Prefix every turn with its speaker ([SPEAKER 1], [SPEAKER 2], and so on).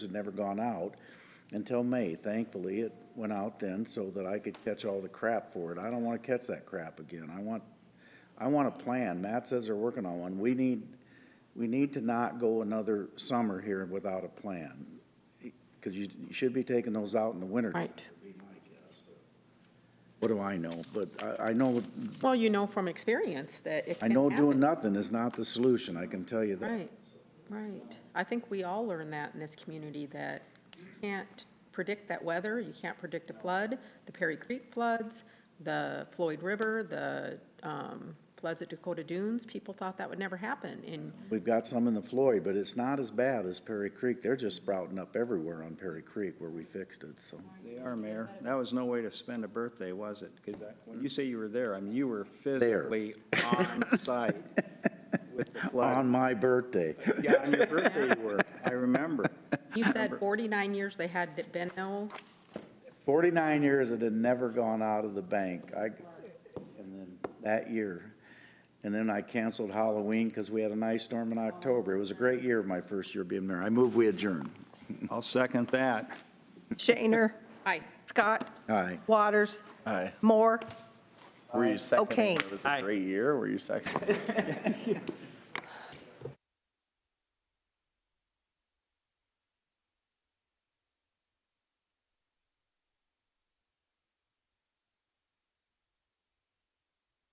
[SPEAKER 1] had never gone out until May. Thankfully, it went out then so that I could catch all the crap for it. I don't want to catch that crap again. I want, I want a plan. Matt says they're working on one. We need, we need to not go another summer here without a plan. Because you you should be taking those out in the winter.
[SPEAKER 2] Right.
[SPEAKER 1] What do I know? But I, I know,
[SPEAKER 2] Well, you know from experience that it
[SPEAKER 1] I
[SPEAKER 2] can
[SPEAKER 1] know doing
[SPEAKER 2] happen.
[SPEAKER 1] nothing is not the solution. I can tell you that.
[SPEAKER 2] Right, right. I think we all learn that in this community, that you can't predict that weather, you can't predict a flood, the Perry Creek floods, the Floyd River, the um, floods at Dakota Dunes, people thought that would never happen, and
[SPEAKER 1] We've got some in the Floyd, but it's not as bad as Perry Creek. They're just sprouting up everywhere on Perry Creek where we fixed it, so.
[SPEAKER 3] They are, Mayor. That was no way to spend a birthday, was it? Because when you say you were there, I mean, you were physically on site with the
[SPEAKER 1] On
[SPEAKER 3] flood.
[SPEAKER 1] my birthday.
[SPEAKER 3] Yeah, on your birthday you were. I remember.
[SPEAKER 2] you said 49 years they had been no,
[SPEAKER 1] Forty-nine years it had never gone out of the bank. I, and then that year. And then I canceled Halloween because we had an ice storm in October. It was a great year, my first year being mayor. I move we adjourn.
[SPEAKER 3] I'll second that.
[SPEAKER 4] Shaner.
[SPEAKER 2] aye.
[SPEAKER 4] Scott.
[SPEAKER 1] Aye.
[SPEAKER 4] Waters.
[SPEAKER 5] Aye.
[SPEAKER 4] Moore.
[SPEAKER 5] Were you seconding?
[SPEAKER 4] Okay.
[SPEAKER 5] It was a great year. Were you seconding?